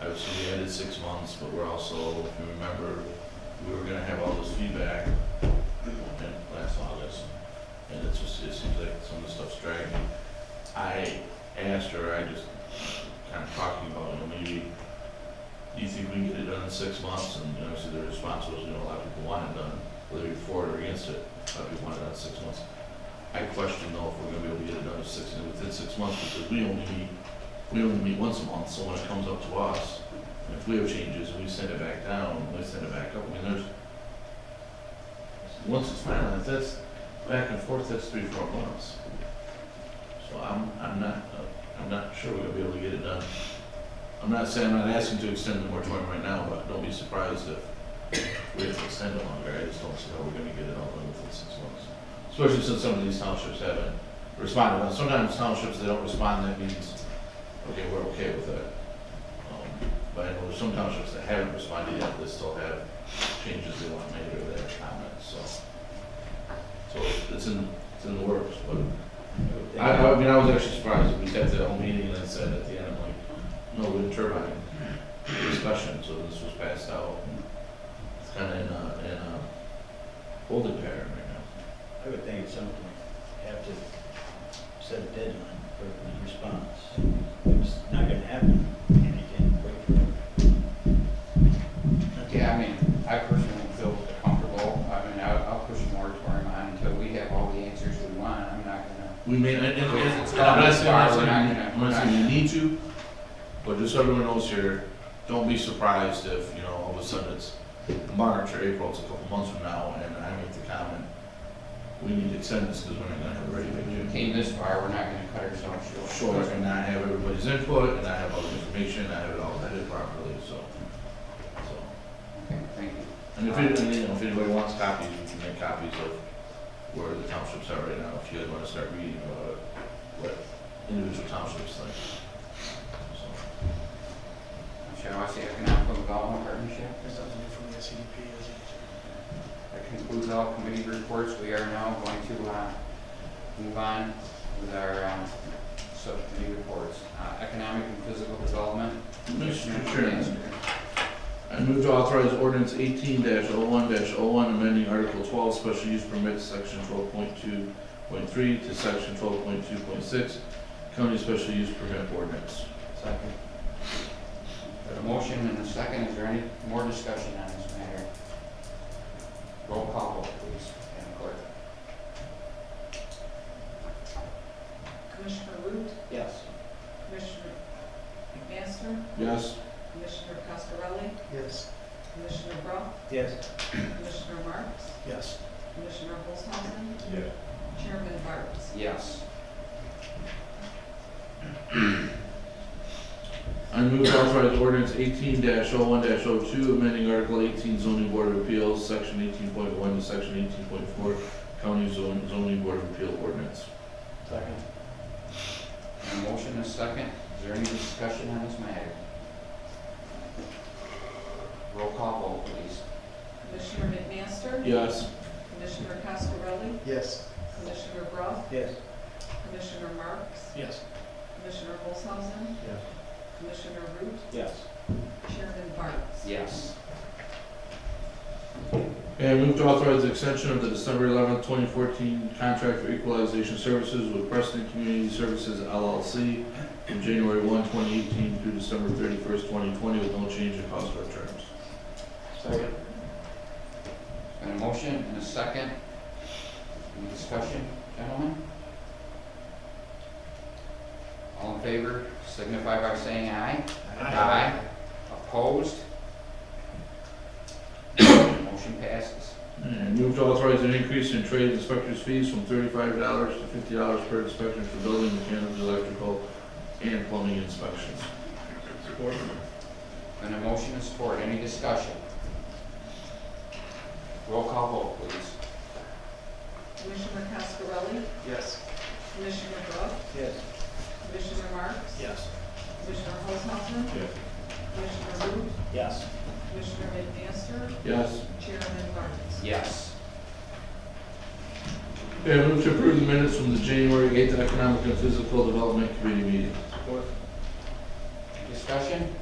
Uh, so we added six months, but we're also, if you remember, we were gonna have all this feedback in last August. And it's just, it seems like some of the stuff's dragging. I asked her, I just kind of talking about, you know, maybe, do you think we can get it done in six months? And obviously the response was, you know, a lot of people want it done, whether you're for it or against it, a lot of people want it done in six months. I question though if we're gonna be able to get it done in six, within six months, because we only meet, we only meet once a month, so when it comes up to us, if we have changes, we send it back down, we send it back up, I mean, there's, once it's finalized, that's back and forth, that's three, four months. So I'm, I'm not, uh, I'm not sure we're gonna be able to get it done. I'm not saying, I'm not asking to extend the moratorium right now, but don't be surprised if we have to extend it longer, I just don't see how we're gonna get it all done within six months. Especially since some of these townships haven't responded, now sometimes townships, they don't respond, that means, okay, we're okay with it. Um, But I know there's some townships that haven't responded yet, they still have changes they want made or their comments, so. So it's in, it's in the works, but I, I mean, I was actually surprised, we kept the whole meeting and then said at the end, I'm like, no wind turbine discussion, so this was passed out. It's kinda in a, in a holding pattern right I would think at some point, have to set a deadline for the response. It's not gonna happen, and you can't wait for Yeah, I mean, I personally don't feel comfortable, I mean, I'll, I'll push a moratorium on until we have all the answers we want, I'm not gonna. now. We may, and, and, It's and not- I'm not saying, I'm not it's not- saying- we're not I'm not saying you need to, but just so everyone knows here, don't be surprised if, you know, all of a sudden it's March or April, it's a couple months from now, and I make the comment, we need to extend this, cause we're not gonna have it ready by June. We Came this far, we're not gonna cut ourselves short. short and I have everybody's input and I have all the information, I have it all vetted properly, so. so Okay, thank you. And if anybody, you know, if anybody wants copies, we can make copies of where the townships are right now, if you guys wanna start reading about what individual townships think. So, Shall I say economic development partnership? There's nothing new from the SCDP, is it? That concludes all committee reports, we are now going to, uh, move on with our, um, subcommittee reports. Uh, economic and physical development. Mr. Chairman, I move to authorize ordinance eighteen one one amending Article twelve, special use permits, section twelve point two point three to section twelve point two point six, county special use permit ordinance. Second. Got a motion and a second, is there any more discussion on this matter? Roll call vote, please, Madam Clerk. Commissioner Root, Yes. Commissioner McMaster, Yes? Commissioner Cascarelli, Yes. Commissioner Brough, Yes. Commissioner Marks, Yes. Commissioner Olshausen, Yeah. Chairman Barnes. Yes. I move to authorize ordinance eighteen dash oh one dash oh two, amending Article eighteen zoning board of appeals, section eighteen point one to section eighteen point four, county zone, zoning board of appeal ordinance. Second. And a motion and a second, is there any discussion on this matter? Roll call vote, please. Commissioner McMaster, Yes. Commissioner Cascarelli, Yes. Commissioner Brough, Yes. Commissioner Marks, Yes. Commissioner Olshausen, Yes. Commissioner Root, Yes. Chairman Barnes. Yes. And I move to authorize the extension of the December eleventh, twenty fourteen contract for equalization services with Preston Community Services LLC from January 1, 2018 through December thirty-first, twenty twenty, with no change in cost or terms. Second. And a motion and a second, any discussion, gentlemen? All in favor, signify by saying aye. Aye. Opposed? Motion passes. And move to authorize an increase in trade inspectors' fees from thirty-five dollars to fifty dollars per inspection for building, mechanical, electrical, and plumbing inspections. Support. And a motion and support, any discussion? Roll call vote, please. Commissioner Cascarelli, Yes. Commissioner Brough, Yes. Commissioner Marks, Yes. Commissioner Olshausen, Yes. Commissioner Root, Yes. Commissioner McMaster, Yes. Chairman Barnes. Yes. And move to approve the minutes from the January eighth Economic and Physical Development Committee meeting. Support. Discussion?